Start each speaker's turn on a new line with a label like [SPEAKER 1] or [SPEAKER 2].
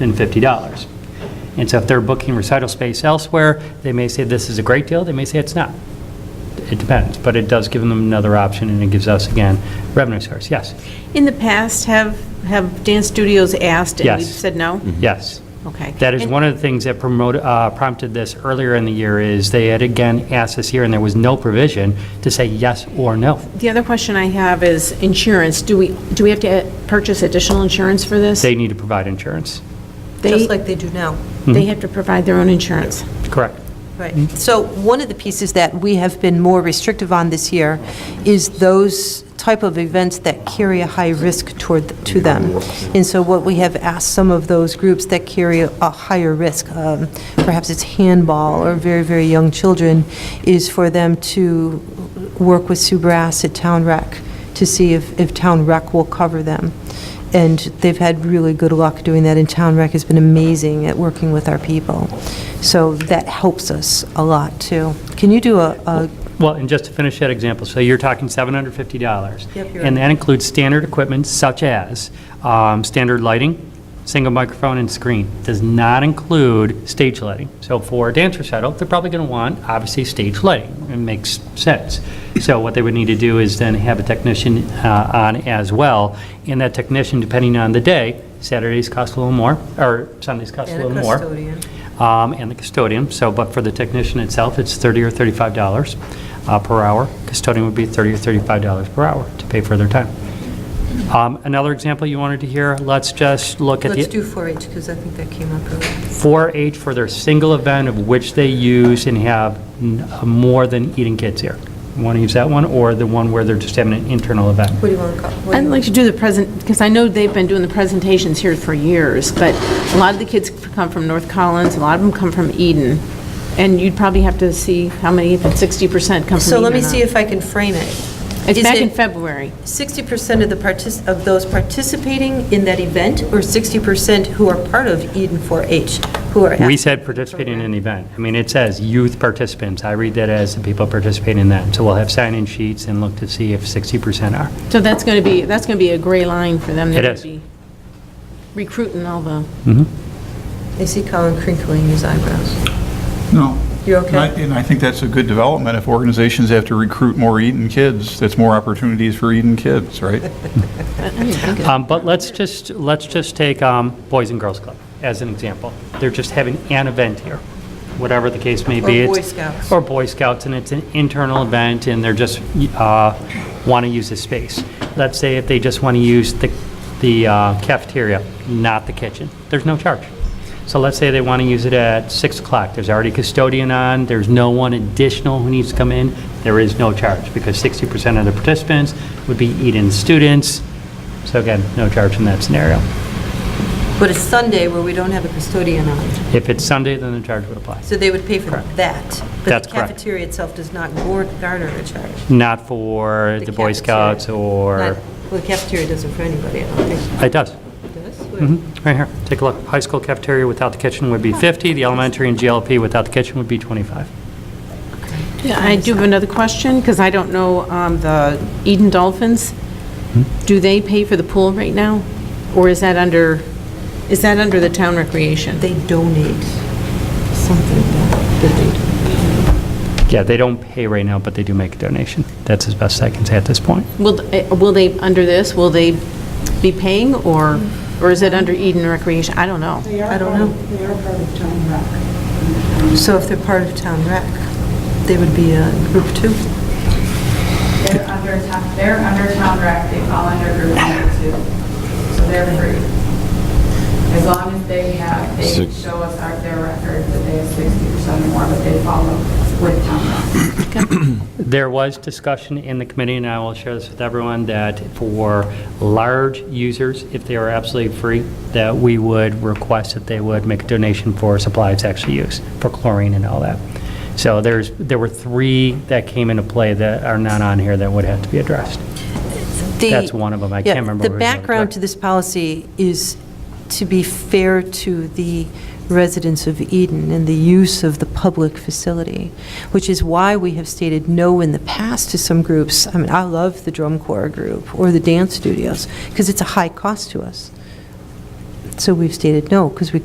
[SPEAKER 1] than $50. And so if they're booking recital space elsewhere, they may say this is a great deal, they may say it's not. It depends, but it does give them another option, and it gives us, again, revenue source. Yes,
[SPEAKER 2] In the past, have, have dance studios asked and we've
[SPEAKER 1] Yes.
[SPEAKER 2] said no?
[SPEAKER 1] yes.
[SPEAKER 2] Okay.
[SPEAKER 1] That is
[SPEAKER 2] And-
[SPEAKER 1] one of the things that promoted, uh, prompted this earlier in the year, is they had again asked this year, and there was no provision to say yes or no.
[SPEAKER 2] The other question I have is insurance. Do we, do we have to purchase additional insurance for this?
[SPEAKER 1] They need to provide insurance.
[SPEAKER 2] They-
[SPEAKER 3] Just like they do now.
[SPEAKER 1] Mm-hmm.
[SPEAKER 2] They have to provide their own insurance.
[SPEAKER 1] Correct.
[SPEAKER 3] Right. So one of the pieces that we have been more restrictive on this year is those type of events that carry a high risk toward, to them. And so what we have asked some of those groups that carry a higher risk, um, perhaps it's handball or very, very young children, is for them to work with Sue Brass at Town Rec to see if, if Town Rec will cover them. And they've had really good luck doing that, and Town Rec has been amazing at working with our people. So that helps us a lot, too. Can you do a- a,
[SPEAKER 1] Well, and just to finish that example, so you're talking $750.
[SPEAKER 3] Yep, you're
[SPEAKER 1] And
[SPEAKER 3] right.
[SPEAKER 1] that includes standard equipment such as um, standard lighting, single microphone and screen. Does not include stage lighting. So for a dance recital, they're probably going to want, obviously, stage lighting. It makes sense. So what they would need to do is then have a technician uh, on as well. And that technician, depending on the day, Saturdays cost a little more, or Sundays cost a
[SPEAKER 3] And a
[SPEAKER 1] little more
[SPEAKER 3] custodian.
[SPEAKER 1] um, and the custodian, so, but for the technician itself, it's 30 or 35 dollars uh, per hour. Custodian would be 30 or 35 dollars per hour to pay for their time. Um, Another example you wanted to hear, let's just look at
[SPEAKER 3] let's do
[SPEAKER 1] the
[SPEAKER 3] 4-H, because I think that came up earlier.
[SPEAKER 1] 4-H for their single event of which they use and have n- uh, more than Eating Kids here. Want to use that one, or the one where they're just having an internal event?
[SPEAKER 3] What do you want to call? what do
[SPEAKER 2] I'd
[SPEAKER 3] you-
[SPEAKER 2] like to do the present, because I know they've been doing the presentations here for years, but a lot of the kids come from North Collins, a lot of them come from Eden, and you'd probably have to see how many, if it's 60% come from Eden
[SPEAKER 3] So let me
[SPEAKER 2] or
[SPEAKER 3] see
[SPEAKER 2] not.
[SPEAKER 3] if I can frame it.
[SPEAKER 2] It's
[SPEAKER 3] Is
[SPEAKER 2] back
[SPEAKER 3] it
[SPEAKER 2] in February.
[SPEAKER 3] 60% of the partic, of those participating in that event, or 60% who are part of Eden 4-H, who are?
[SPEAKER 1] We said participating in an event. I mean, it says youth participants. I read that as the people participating in that. So we'll have sign-in sheets and look to see if 60% are.
[SPEAKER 2] So that's going to be, that's going to be a gray line for them. They're
[SPEAKER 1] It
[SPEAKER 2] gonna
[SPEAKER 1] is.
[SPEAKER 2] be Recruiting all the,
[SPEAKER 3] I see Colin crinkling his eyebrows.
[SPEAKER 4] No.
[SPEAKER 3] You okay?
[SPEAKER 4] And I- And I think that's a good development. If organizations have to recruit more Eden kids, that's more opportunities for Eden kids, right?
[SPEAKER 2] I didn't think of
[SPEAKER 1] Um, But let's just, let's just take um, Boys and Girls Club as an example. They're just having an event here, whatever the case may be.
[SPEAKER 3] Or Boy
[SPEAKER 1] It's-
[SPEAKER 3] Scouts.
[SPEAKER 1] Or Boy Scouts, and it's an internal event, and they're just, want to use the space. Let's say if they just want to use the the uh, cafeteria, not the kitchen, there's no charge. So let's say they want to use it at 6 o'clock, there's already custodian on, there's no one additional who needs to come in, there is no charge, because 60% of the participants would be Eden students, so again, no charge in that scenario.
[SPEAKER 3] But it's Sunday where we don't have a custodian on,
[SPEAKER 1] If it's Sunday, then the charge would apply.
[SPEAKER 3] so they would pay for
[SPEAKER 1] Correct.
[SPEAKER 3] that.
[SPEAKER 1] That's
[SPEAKER 3] But the
[SPEAKER 1] correct.
[SPEAKER 3] cafeteria itself does not gar- garner a charge.
[SPEAKER 1] Not for the Boy
[SPEAKER 3] cafeteria.
[SPEAKER 1] Scouts or,
[SPEAKER 3] Not- Well, the cafeteria doesn't for anybody, I don't think.
[SPEAKER 1] it does.
[SPEAKER 3] Does?
[SPEAKER 1] Mhm, Right here, take a look. High school cafeteria without the kitchen would be 50, the elementary and GLP without the kitchen would be 25.
[SPEAKER 2] Yeah, I do have another question, because I don't know, um, the Eden Dolphins,
[SPEAKER 1] Hmm?
[SPEAKER 2] do they pay for the pool right now? Or is that under, is that under the town recreation?
[SPEAKER 3] They donate something that they do.
[SPEAKER 1] Yeah, they don't pay right now, but they do make a donation. That's as best I can say at this point.
[SPEAKER 2] Will, eh, will they, under this, will they be paying, or, or is it under Eden Recreation? I don't know.
[SPEAKER 5] They are
[SPEAKER 3] I don't
[SPEAKER 5] part
[SPEAKER 3] know.
[SPEAKER 5] of- They are part of Town Rock.
[SPEAKER 3] So if they're part of town rec, they would be a group two.
[SPEAKER 6] They're under town, they're under town rec, they fall under group number two, so they're free. As long as they have, they
[SPEAKER 7] Six.
[SPEAKER 6] show us our- their record that they have sixty percent or more, but they follow with town rec.
[SPEAKER 1] There was discussion in the committee, and I will share this with everyone, that for large users, if they are absolutely free, that we would request that they would make a donation for supplies actually used, for chlorine and all that. So there's, there were three that came into play that are not on here that would have to be addressed.
[SPEAKER 3] The-
[SPEAKER 1] That's one of them. I can't
[SPEAKER 3] Yeah,
[SPEAKER 1] remember
[SPEAKER 3] The
[SPEAKER 1] which one.
[SPEAKER 3] background to this policy is to be fair to the residents of Eden and the use of the public facility, which is why we have stated no in the past to some groups. I mean, I love the drum corps group or the dance studios, because it's a high cost to us. So we've stated no, because we